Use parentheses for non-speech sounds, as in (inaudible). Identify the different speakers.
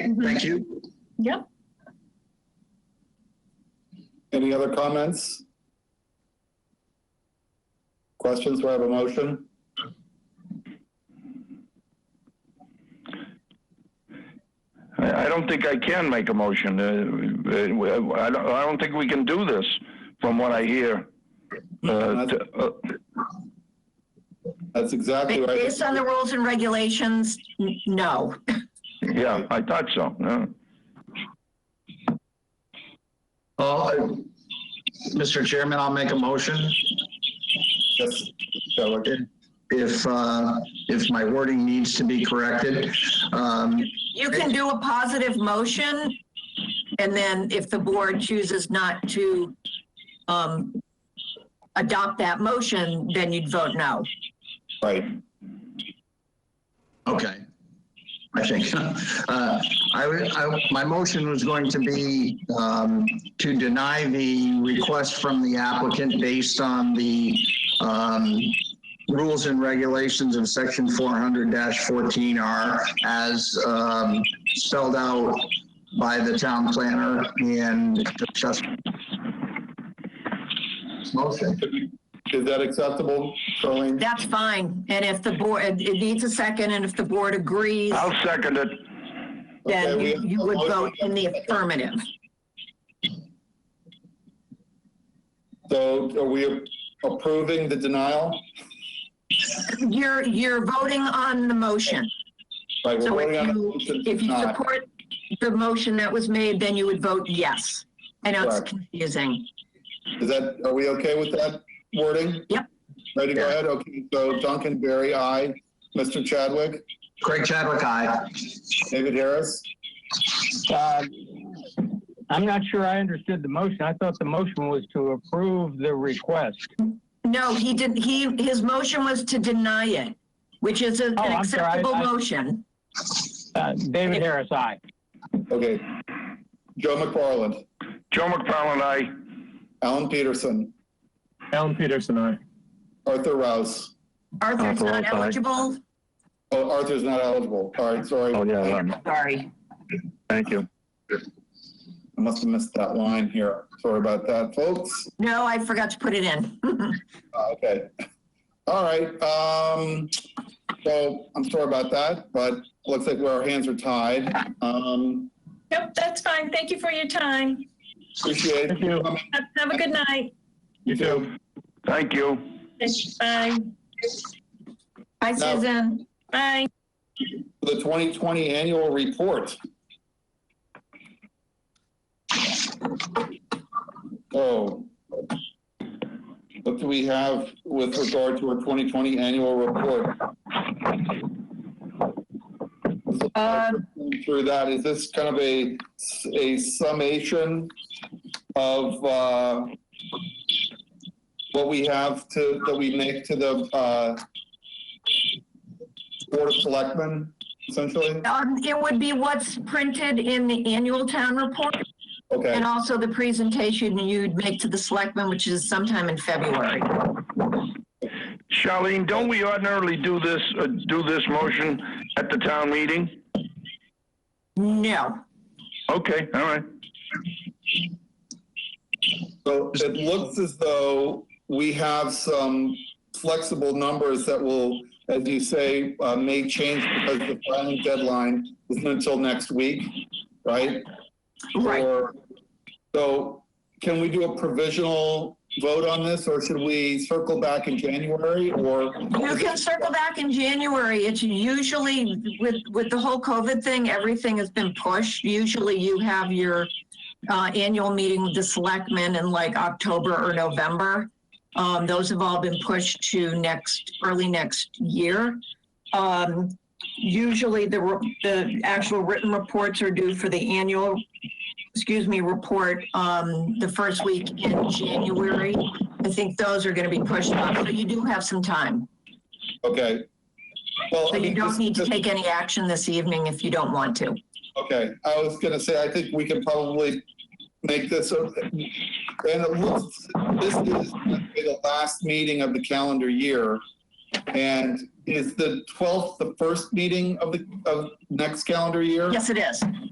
Speaker 1: Thank you.
Speaker 2: Yep.
Speaker 3: Any other comments? Questions Do I have a motion?
Speaker 4: I I don't think I can make a motion. Uh, uh, I don't, I don't think we can do this, from what I hear. Uh, t- uh,
Speaker 3: That's exactly what I,
Speaker 2: Based on the rules and regulations, n- no.
Speaker 4: Yeah, I thought so. yeah.
Speaker 1: Uh, Mr. Chairman, I'll make a motion
Speaker 3: yes, so, okay.
Speaker 1: if, uh, if my wording needs to be corrected. Um,
Speaker 2: You can do a positive motion, and then if the board chooses not to um, adopt that motion, then you'd vote no.
Speaker 3: right.
Speaker 1: Okay. I think, (laughs) uh, I, would- I, my motion was going to be, um, to deny the request from the applicant based on the, um, rules and regulations of section four hundred fourteen R as, um, spelled out by the town planner and discussed. Motion.
Speaker 3: Is that acceptable, Colleen?
Speaker 2: That's fine. And if the board, it it needs a second, and if the board agrees,
Speaker 4: I'll second it.
Speaker 2: then
Speaker 3: Okay, we
Speaker 2: you
Speaker 3: have
Speaker 2: you
Speaker 3: a
Speaker 2: would
Speaker 3: motion.
Speaker 2: vote in the affirmative.
Speaker 3: So are we approving the denial?
Speaker 2: You're, you're voting on the motion.
Speaker 3: Right, we're
Speaker 2: So if
Speaker 3: voting on a
Speaker 2: you-
Speaker 3: motion to
Speaker 2: If you
Speaker 3: deny.
Speaker 2: support the motion that was made, then you would vote yes. I know it's
Speaker 3: Correct.
Speaker 2: confusing.
Speaker 3: Is that, are we okay with that wording?
Speaker 2: Yep.
Speaker 3: Ready to go
Speaker 1: Yeah.
Speaker 3: ahead? Okay, so Duncan Berry, aye. Mr. Chadwick,
Speaker 1: Craig Chadwick, aye.
Speaker 3: David Harris?
Speaker 5: Uh, I'm not sure I understood the motion. I thought the motion was to approve the request.
Speaker 2: No, he didn't, he, his motion was to deny it, which is a-
Speaker 5: Oh,
Speaker 2: an
Speaker 5: I'm sorry, I-
Speaker 2: acceptable
Speaker 5: I-
Speaker 2: motion.
Speaker 5: Uh, David Harris, aye.
Speaker 3: Okay. Joe McFarland,
Speaker 4: Joe McFarland, aye.
Speaker 3: Alan Peterson,
Speaker 6: Alan Peterson, aye.
Speaker 3: Arthur Rouse.
Speaker 2: Arthur's
Speaker 4: Arthur,
Speaker 2: not
Speaker 4: aye.
Speaker 2: eligible?
Speaker 3: Oh, Arthur's not eligible. All right, sorry.
Speaker 4: Oh, yeah, um,
Speaker 2: Sorry.
Speaker 4: thank you.
Speaker 3: I must have missed that line here. Sorry about that, folks.
Speaker 2: No, I forgot to put it in. (laughs)
Speaker 3: Uh, Okay. All right. Um, so I'm sorry about that, but looks like our hands are tied. Um,
Speaker 7: Yep, that's fine. Thank you for your time.
Speaker 3: appreciate it.
Speaker 6: Thank you.
Speaker 7: Have have a good night.
Speaker 3: You too.
Speaker 4: Thank you.
Speaker 7: Bye.
Speaker 2: Hi,
Speaker 3: No.
Speaker 2: Susan.
Speaker 7: Bye.
Speaker 3: the 2020 annual report. So, what do we have with regard to our 2020 annual report?
Speaker 2: Um,
Speaker 3: Through that, is this kind of a, a summation of uh, what we have to, that we make to the uh, Board of Selectmen, essentially?
Speaker 2: um, It would be what's printed in the annual town report
Speaker 3: Okay.
Speaker 2: and also the presentation you'd make to the selectmen, which is sometime in February.
Speaker 4: Charlene, don't we ordinarily do this, uh, do this motion at the town meeting?
Speaker 2: No.
Speaker 4: Okay, all right.
Speaker 3: So it looks as though we have some flexible numbers that will, as you say, uh, may change because the filing deadline isn't until next week, right?
Speaker 2: Right.
Speaker 3: Or- So can we do a provisional vote on this or should we circle back in January or?
Speaker 2: You can circle back in January. It's usually with, with the whole COVID thing, everything has been pushed. Usually you have your uh, annual meeting with the selectmen in like October or November. Um, those have all been pushed to next, early next year. Um, usually the, re- the actual written reports are due for the annual, excuse me, report, um, the first week in January. I think those are gonna be pushed off, so you do have some time.
Speaker 3: Okay. Well,
Speaker 2: So
Speaker 3: I
Speaker 2: you
Speaker 3: mean,
Speaker 2: don't
Speaker 3: this-
Speaker 2: need to
Speaker 3: this-
Speaker 2: take any action this evening if you don't want to.
Speaker 3: Okay, I was gonna say, I think we can probably make this, a- and it looks, this is the last meeting of the calendar year. And is the 12th the first meeting of the, of next calendar year?
Speaker 2: Yes, it is.